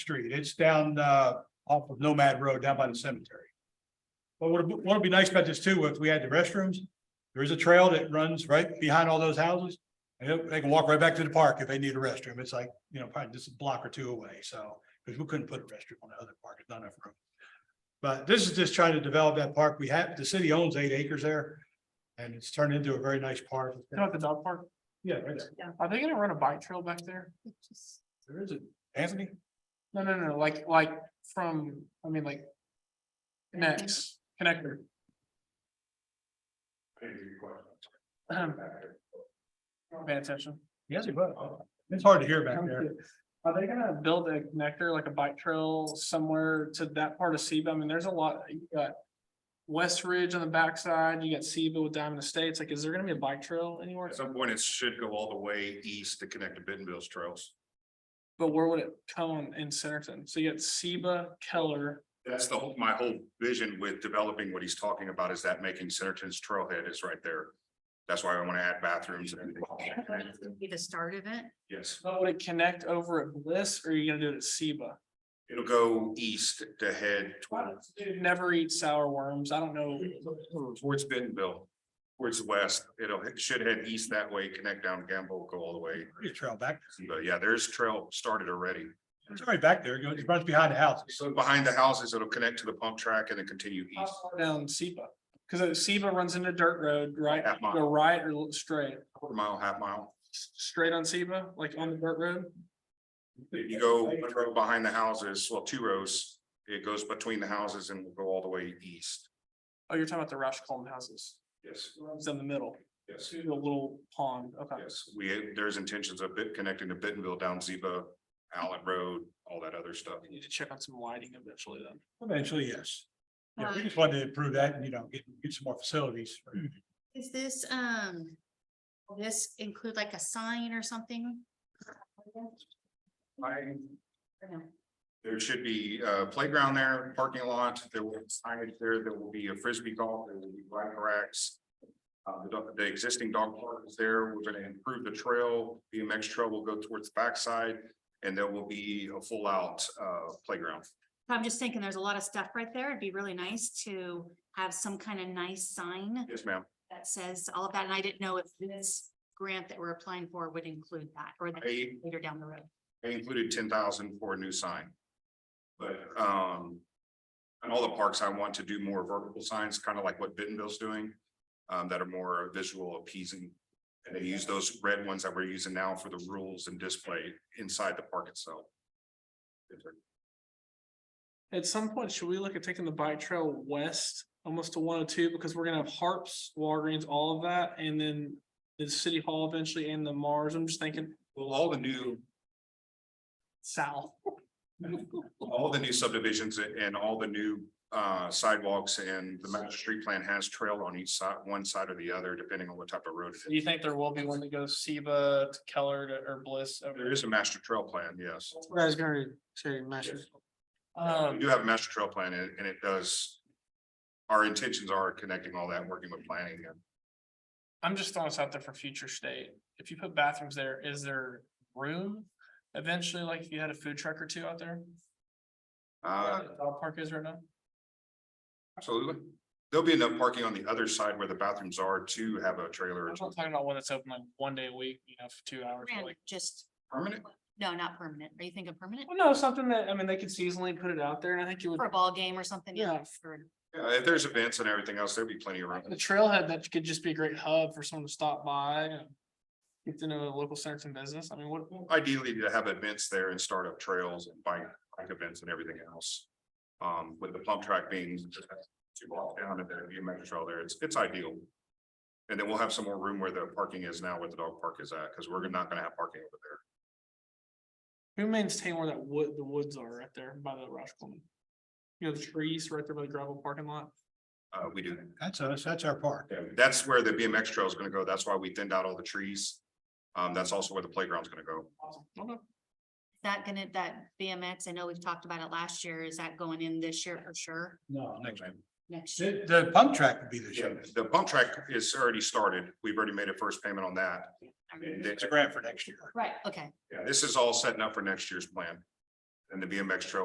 street. It's down uh off of Nomad Road down by the cemetery. But what would what would be nice about this too, if we had the restrooms, there is a trail that runs right behind all those houses. And they- they can walk right back to the park if they need a restroom. It's like, you know, probably just a block or two away, so, because we couldn't put a restroom on the other park, it's not enough room. But this is just trying to develop that park. We have, the city owns eight acres there. And it's turned into a very nice park. You know, at the dog park, Yeah, right there. are they gonna run a bike trail back there? There is it. Anthony? No, no, no, like, like from, I mean, like. Next, connector. Ahem. Pay attention. Yes, it will. It's hard to hear back there. Are they gonna build a connector, like a bike trail somewhere to that part of Seba? I mean, there's a lot, you got. West Ridge on the backside, you got Seba with Diamond Estates, like, is there gonna be a bike trail anywhere? At some point, it should go all the way east to connect to Bentonville's trails. But where would it come in Centerton? So you got Seba, Keller, That's the whole, my whole vision with developing what he's talking about is that making Centerton's trailhead is right there. That's why I want to add bathrooms and everything. Be the start of it. Yes, but would it connect over at Bliss or are you gonna do it at Seba? it'll go east to head towards, Dude, Never eat sour worms. I don't know. towards Bentonville. Towards west, it'll, it should head east that way, connect down Gamble, go all the way. Pretty trail back. But yeah, there's trail started already. It's already back there. It goes- It runs behind the houses. So behind the houses, it'll connect to the pump track and then continue how east. far Down Seba, because Seba runs into dirt road, right? Half mile. Go right or look straight, Quarter mile, half mile. S- straight on Seba, like on the dirt road? If you go one row behind the houses, well, two rows, it goes between the houses and will go all the way east. Oh, you're talking about the Roush Coleman houses. Yes, It's in the middle, yes, the little pond. Okay. yes. We, there's intentions of bit connecting to Bentonville down Ziba, Allen Road, all that other stuff. We Need to check on some lighting eventually then. Eventually, yes. Yeah, we Um, just wanted to improve that and, you know, get, get some more facilities. Is this, um, will this include like a sign or something? I, Or no? there should be a playground there, parking lot, there will be signage there, there will be a frisbee golf, there will be bike racks. Uh, the, dog- the existing dog park is there, we're gonna improve the trail, BMX trail will go towards the backside, and there will be a full out, uh, playground. I'm just thinking, there's a lot of stuff right there. It'd be really nice to have some kind of nice sign Yes, ma'am. that says all of that, and I didn't know if this grant that we're applying for would include that, or that I, later down the road. I included ten thousand for a new sign. But, um, in all the parks, I want to do more vertical signs, kind of like what Bentonville's doing, um, that are more visual appeasing. And they use those red ones that we're using now for the rules and display inside the park itself. At some point, should we look at taking the bike trail west almost to one oh two because we're gonna have Harps, Walgreens, all of that, and then. The city hall eventually and the Mars. I'm just thinking Well, all the new, south. all the new subdivisions and all the new, uh, sidewalks and the master street plan has trail on each side, one side or the other, depending on what type of road. it is. Do you think there will be one that goes Seba to Keller to- or Bliss? over There is a master trail plan, yes. Guys, gonna say measures. We Um, do have a master trail plan and, and it does. Our intentions are connecting all that, working with planning and I'm just throwing this out there for future state. If you put bathrooms there, is there room? Eventually, like if you had a food truck or two out there, uh, where the dog park is right now. absolutely. There'll be enough parking on the other side where the bathrooms are to have a trailer. I'm or not something. talking about one that's open like one day a week, you know, for two hours. but, Grant, like- Just, Permanent, no, not permanent. Are you thinking permanent Well, no, something that, I mean, they could seasonally put it out there and I think you would, for a ball game or something? Yeah. For- yeah, uh, if there's events and everything else, there'd be plenty of room. the trailhead, that could just be a great hub for someone to stop by and. Get to know the local Centerton business. I mean, what, Ideally to have events there and start up trails and bike, bike events and everything else. Um, with the pump track being two blocks down and there'd be a master trail there, it's, it's ideal. And then we'll have some more room where the parking is now, where the dog park is at, because we're not gonna have parking over there. who maintains where that wood, the woods are right there by the Roush Coleman? You know, the trees right there by the gravel parking lot. Uh, we do. That's us, that's our park. Yeah, That's where the BMX trail is gonna go. That's why we thinned out all the trees. Um, that's also where the playground's gonna go. Awesome. Okay. Is that gonna, that BMX, I know we've talked about it last year, is that going in this year for sure? No, next. Next year? The, the pump track would be the show. The pump track is already started. We've already made a first payment on that. I remember. And It's a grant for next year. Right, okay. yeah, this is all setting up for next year's plan. and the BMX trail